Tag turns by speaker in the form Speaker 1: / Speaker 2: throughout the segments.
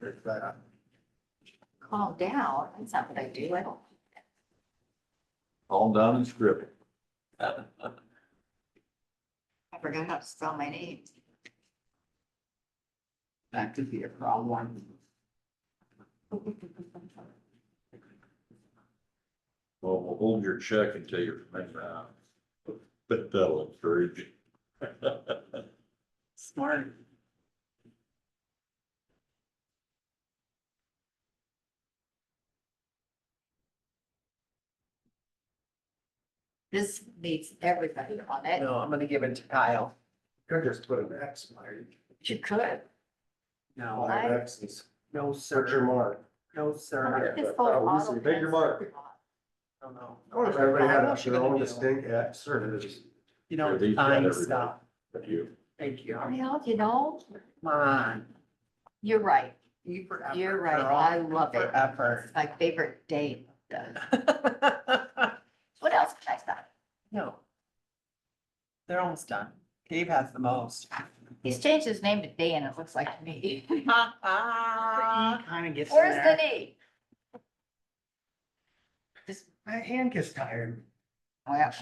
Speaker 1: There's that.
Speaker 2: calm down. That's not what I do. I don't.
Speaker 1: All down and scribble.
Speaker 2: I forgot how to spell my name.
Speaker 3: That could be a problem.
Speaker 1: Well, we'll hold your check until you're made out. But that'll encourage you.
Speaker 3: Smart.
Speaker 2: This needs everybody on it.
Speaker 3: No, I'm gonna give it to Kyle.
Speaker 4: Could just put an X, Larry.
Speaker 2: You could.
Speaker 3: No,
Speaker 2: Why?
Speaker 4: Five X's.
Speaker 3: no,
Speaker 4: Search your
Speaker 3: sir,
Speaker 4: mark.
Speaker 3: no,
Speaker 2: Look
Speaker 3: sir,
Speaker 2: at this
Speaker 4: I
Speaker 2: whole
Speaker 4: thought we said,
Speaker 2: auto
Speaker 4: "Make your
Speaker 2: test.
Speaker 4: mark."
Speaker 3: I don't know.
Speaker 4: I wonder if everybody
Speaker 3: What
Speaker 4: had
Speaker 3: she
Speaker 4: their
Speaker 3: gonna
Speaker 4: own
Speaker 3: do?
Speaker 4: distinct X or it is.
Speaker 3: You
Speaker 1: Yeah,
Speaker 3: know,
Speaker 1: these got
Speaker 3: time
Speaker 1: everybody.
Speaker 3: stuff,
Speaker 1: But you,
Speaker 3: thank you, come
Speaker 2: Well, you know,
Speaker 3: on.
Speaker 2: you're right.
Speaker 3: You forever,
Speaker 2: You're right.
Speaker 3: girl.
Speaker 2: I love it.
Speaker 3: Forever.
Speaker 2: It's my favorite day. What else can I say?
Speaker 3: No. They're almost done, Dave has the most.
Speaker 2: He's changed his name to Dan. It looks like me.
Speaker 3: Ah, kinda gets in
Speaker 2: Where's
Speaker 3: there.
Speaker 2: the knee? Just,
Speaker 4: My hand gets tired.
Speaker 2: well,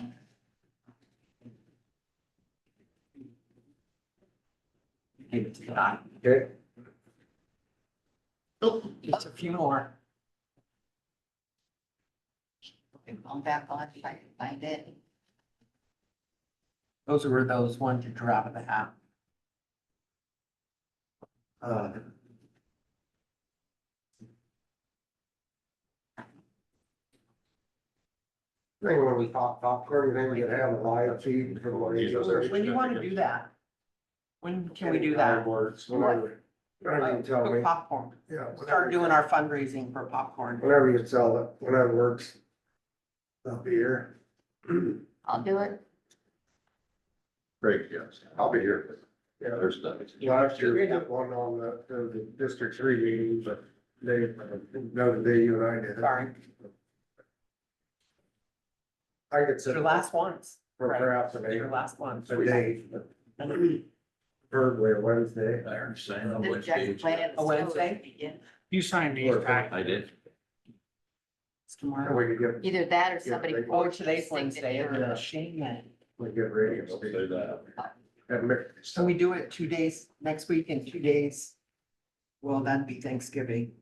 Speaker 3: Give it to God.
Speaker 4: Okay,
Speaker 3: Oh, It's a few more.
Speaker 2: I'm going back on if I can find it.
Speaker 3: Those were those ones you drew out of the hat.
Speaker 4: uh, I think when we pop popcorn, then we could have a live feed for the ladies.
Speaker 1: Jesus.
Speaker 3: When do you wanna do that? When can we do
Speaker 4: Time
Speaker 3: that? Uh,
Speaker 4: Works, whatever. Whatever you tell
Speaker 3: For
Speaker 4: me.
Speaker 3: popcorn,
Speaker 4: Yeah. whatever
Speaker 3: start
Speaker 4: you-
Speaker 3: doing our fundraising for popcorn.
Speaker 4: Whenever you sell it, whenever works. Up here.
Speaker 2: I'll do it.
Speaker 1: Craig, yes, I'll be here. Yeah, there's nothing.
Speaker 4: Last year, we did one on the, the District Three meeting, but they, no, the day you and I did it.
Speaker 3: Sorry,
Speaker 4: I could
Speaker 3: it's your
Speaker 4: sit
Speaker 3: last ones,
Speaker 4: for perhaps a
Speaker 3: It's
Speaker 4: day,
Speaker 3: your last ones.
Speaker 4: a day. but Probably a Wednesday.
Speaker 1: I understand. on
Speaker 2: This Jackson
Speaker 1: Wednesdays.
Speaker 2: plan.
Speaker 3: A Oh, Wednesday?
Speaker 5: You signed these
Speaker 4: Or-
Speaker 5: back.
Speaker 1: I did.
Speaker 3: It's
Speaker 4: And
Speaker 3: tomorrow.
Speaker 4: we could get,
Speaker 2: Either that or somebody.
Speaker 4: Yeah, they-
Speaker 3: Oh,
Speaker 2: forged
Speaker 3: today's
Speaker 2: his
Speaker 3: Wednesday,
Speaker 2: signature.
Speaker 3: isn't it? Shame that.
Speaker 4: we get
Speaker 1: Say
Speaker 4: radio. station.
Speaker 1: that.
Speaker 4: And mix-
Speaker 3: So we do it two days, next week and two days. Well, that'd be Thanksgiving.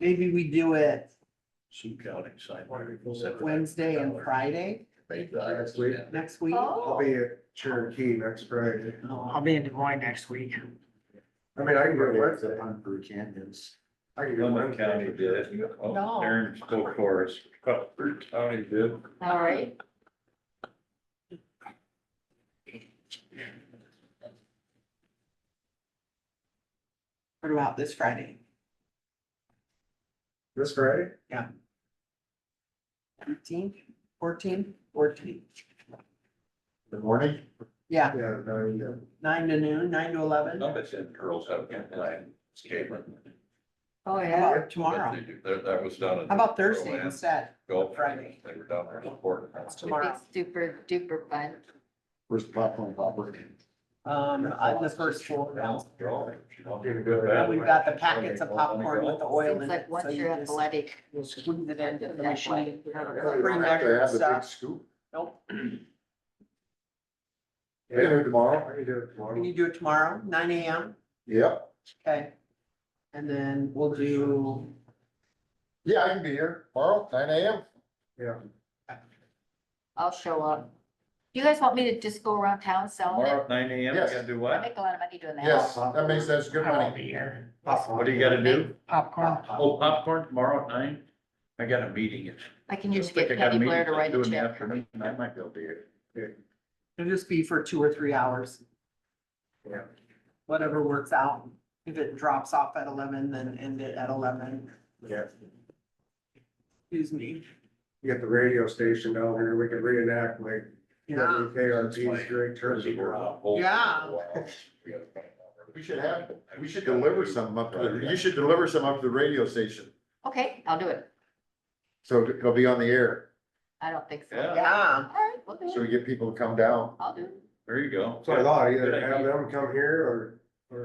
Speaker 3: Maybe we do it
Speaker 1: Sioux County side.
Speaker 3: Wednesday and Friday
Speaker 1: Made that.
Speaker 4: Next week.
Speaker 3: next week.
Speaker 4: I'll
Speaker 2: Oh,
Speaker 4: be at Cherokee next Friday.
Speaker 3: Oh,
Speaker 5: I'll be in Des Moines next week.
Speaker 4: I mean, I can go Wednesday.
Speaker 1: Brew Canyons.
Speaker 4: I can go
Speaker 1: Cumberland
Speaker 4: Wednesday.
Speaker 1: County did.
Speaker 3: No.
Speaker 1: Oh, Aaron spoke for us. Brew County did.
Speaker 2: all right.
Speaker 3: What about this Friday?
Speaker 4: This Friday?
Speaker 3: Fourteen, fourteen, fourteen,
Speaker 1: The morning?
Speaker 3: yeah,
Speaker 4: Yeah, no, yeah.
Speaker 3: nine to noon, nine to eleven,
Speaker 1: No, they said girls have a good plan. It's Caitlin.
Speaker 2: Oh,
Speaker 3: How
Speaker 2: yeah.
Speaker 3: about tomorrow,
Speaker 1: They do. That, that was done. at
Speaker 3: how about Thursday
Speaker 1: Roland
Speaker 3: instead,
Speaker 1: Golf.
Speaker 3: Friday?
Speaker 1: They were down there supporting.
Speaker 3: That's
Speaker 2: It'd be
Speaker 3: tomorrow,
Speaker 2: super duper fun.
Speaker 1: Where's the popcorn popper?
Speaker 3: um, on the first floor now.
Speaker 1: Drawing. you know.
Speaker 4: Didn't go
Speaker 3: And
Speaker 4: that
Speaker 3: we've
Speaker 4: way.
Speaker 3: got the packets of popcorn with the oil
Speaker 2: Seems
Speaker 3: in
Speaker 2: like
Speaker 3: it, so
Speaker 2: once
Speaker 3: you
Speaker 2: you're
Speaker 3: just
Speaker 2: athletic,
Speaker 3: squeeze it into the machine.
Speaker 4: Yeah, you don't
Speaker 3: Bring
Speaker 4: have to
Speaker 3: measured
Speaker 4: have the big
Speaker 3: stuff.
Speaker 4: scoop.
Speaker 3: Nope,
Speaker 4: Can I do it tomorrow? I can do it
Speaker 3: can
Speaker 4: tomorrow.
Speaker 3: you do it tomorrow, nine AM,
Speaker 4: Yep.
Speaker 3: okay? And then we'll do,
Speaker 4: Yeah, I can be here tomorrow, nine AM. Yeah.
Speaker 2: I'll show up. Do you guys want me to just go around town selling it?
Speaker 1: Tomorrow at nine AM, you
Speaker 4: Yes.
Speaker 1: gotta do
Speaker 2: I
Speaker 1: what?
Speaker 2: make a lot of money doing that.
Speaker 4: Yes, that makes sense. Good
Speaker 5: I won't
Speaker 4: money.
Speaker 5: be here.
Speaker 1: What do you gotta do?
Speaker 5: Popcorn.
Speaker 1: Oh, popcorn tomorrow at nine? I got a meeting. It's-
Speaker 2: I can usually get
Speaker 1: I think I got a
Speaker 2: Penny Blair to
Speaker 1: meeting
Speaker 2: write
Speaker 1: do
Speaker 2: a
Speaker 1: in the
Speaker 2: check.
Speaker 1: afternoon. I might be able to do it.
Speaker 3: it'll just be for two or three hours.
Speaker 4: Yeah.
Speaker 3: Whatever works out, if it drops off at eleven, then end it at eleven,
Speaker 4: Yeah,
Speaker 3: excuse me.
Speaker 4: get the radio station down here. We can reenact like
Speaker 3: Yeah,
Speaker 4: WKRP's great turkey. Drive.
Speaker 3: Yeah.
Speaker 1: We
Speaker 4: should have- We should deliver some up, to the- you should deliver some up to the radio station,
Speaker 2: Okay, I'll do it.
Speaker 4: so it'll be on the air,
Speaker 2: I don't think so.
Speaker 1: Yeah.
Speaker 3: yeah,
Speaker 2: All right, we'll
Speaker 4: so
Speaker 2: do
Speaker 4: we
Speaker 2: it.
Speaker 4: get people to come down.
Speaker 2: I'll do it.
Speaker 1: There you go.
Speaker 4: That's what I thought, either have them come here or